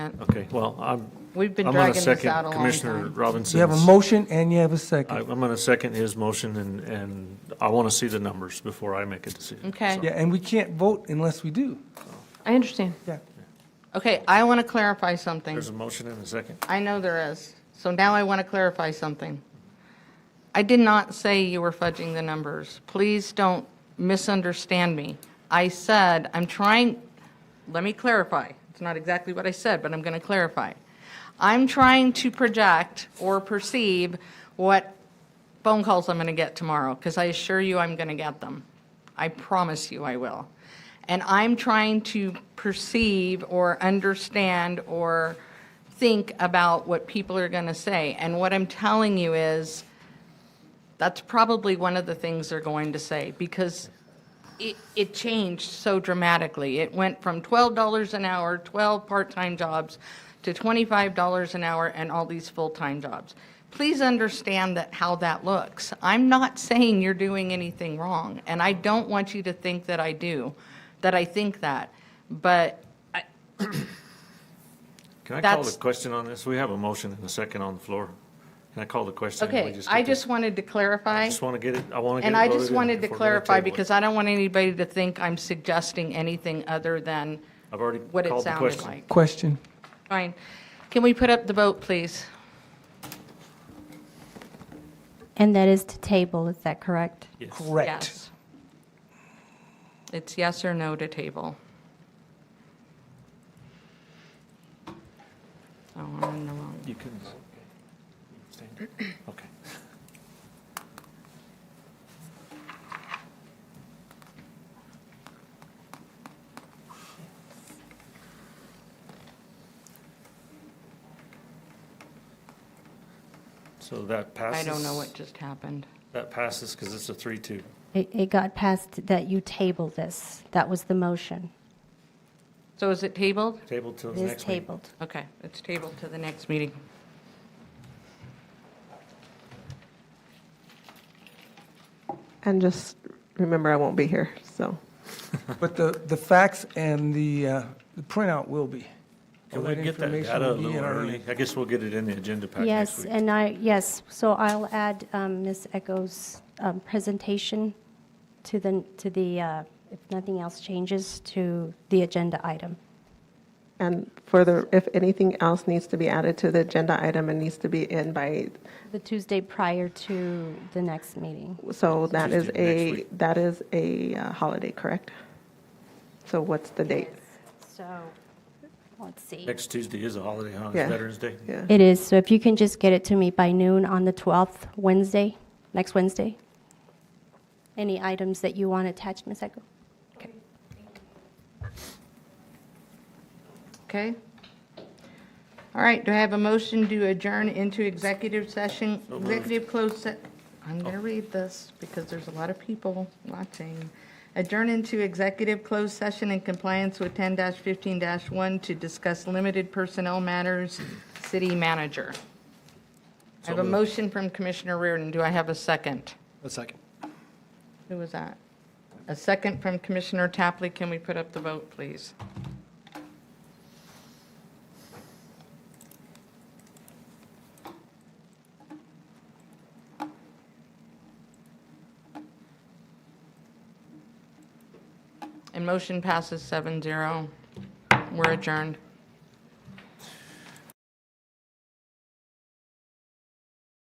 Okay, well, I'm, We've been I'm going to dragging this second out a long Commissioner time. Robinson's. You have a motion and you have a I- second. I'm going to second his motion, and, and I want to see the numbers before I make a decision. Okay. Yeah, and we can't vote unless we do. I understand. Yeah. Okay, I want to clarify something. There's a motion and a second. I know there is. So now I want to clarify something. I did not say you were fudging the numbers. Please don't misunderstand me. I said, I'm trying, let me clarify. It's not exactly what I said, but I'm going to clarify. I'm trying to project or perceive what phone calls I'm going to get tomorrow, because I assure you I'm going to get them. I promise you I will. And I'm trying to perceive or understand or think about what people are going to say. And what I'm telling you is, that's probably one of the things they're going to say, because it, it changed so dramatically. It went from $12 an hour, 12 part-time jobs, to $25 an hour and all these full-time jobs. Please understand that, how that looks. I'm not saying you're doing anything wrong, and I don't want you to think that I do, that I think that. But I- Can I call the That's- question on this? We have a motion and a second on the floor. Can I call the question? and we Okay, get I the- just wanted to clarify. Just want to get it, I want to get it And I voted just in wanted to before we're gonna clarify, table it. because I don't want anybody to think I'm suggesting anything other than I've already what it called the sounded question. like. Question. Fine. Can we put up the vote, please? And that is to table, is that correct? Yes. Correct. Yes. It's yes or no to table. Oh, I'm in the wrong. You can. Okay. So that I passes. don't know what just happened. That passes because it's a three-two. It, it got passed that you table this. That was the motion. So is it tabled? Table till It the is next meeting. tabled. Okay, it's tabled to the next meeting. And just remember, I won't be here, so. But the, the facts and the, uh, the printout will be. Can All we get that information data a will be little in our early? hand. I guess we'll get it in the agenda pack Uh, next Yes, week. and I, yes, so I'll add um, Ms. Echo's um, presentation to the, to the, uh, if nothing else changes, to the agenda item. And further, if anything else needs to be added to the agenda item, it needs to be in by, The Tuesday prior to the next meeting. so that is Tuesday, next a, week. that is a uh, holiday, correct? So what's the date? So, let's see. Next Tuesday is a holiday, huh? It's Yeah. Veterans Day. Yeah, It is, so if you can just get it to me by noon on the 12th, Wednesday, next Wednesday. Any items that you want attached, Ms. Echo? Okay? All right, do I have a motion to adjourn into executive session, moved. executive closed se, I'm going to read this because there's a lot of people watching. Adjourn into executive closed session in compliance with 10-15-1 to discuss limited personnel matters, city manager. I have a motion from Commissioner Reardon. Do I have a second? A second. Who was that? A second from Commissioner Tapley. Can we put up the vote, please? And motion passes 7-0. We're adjourned.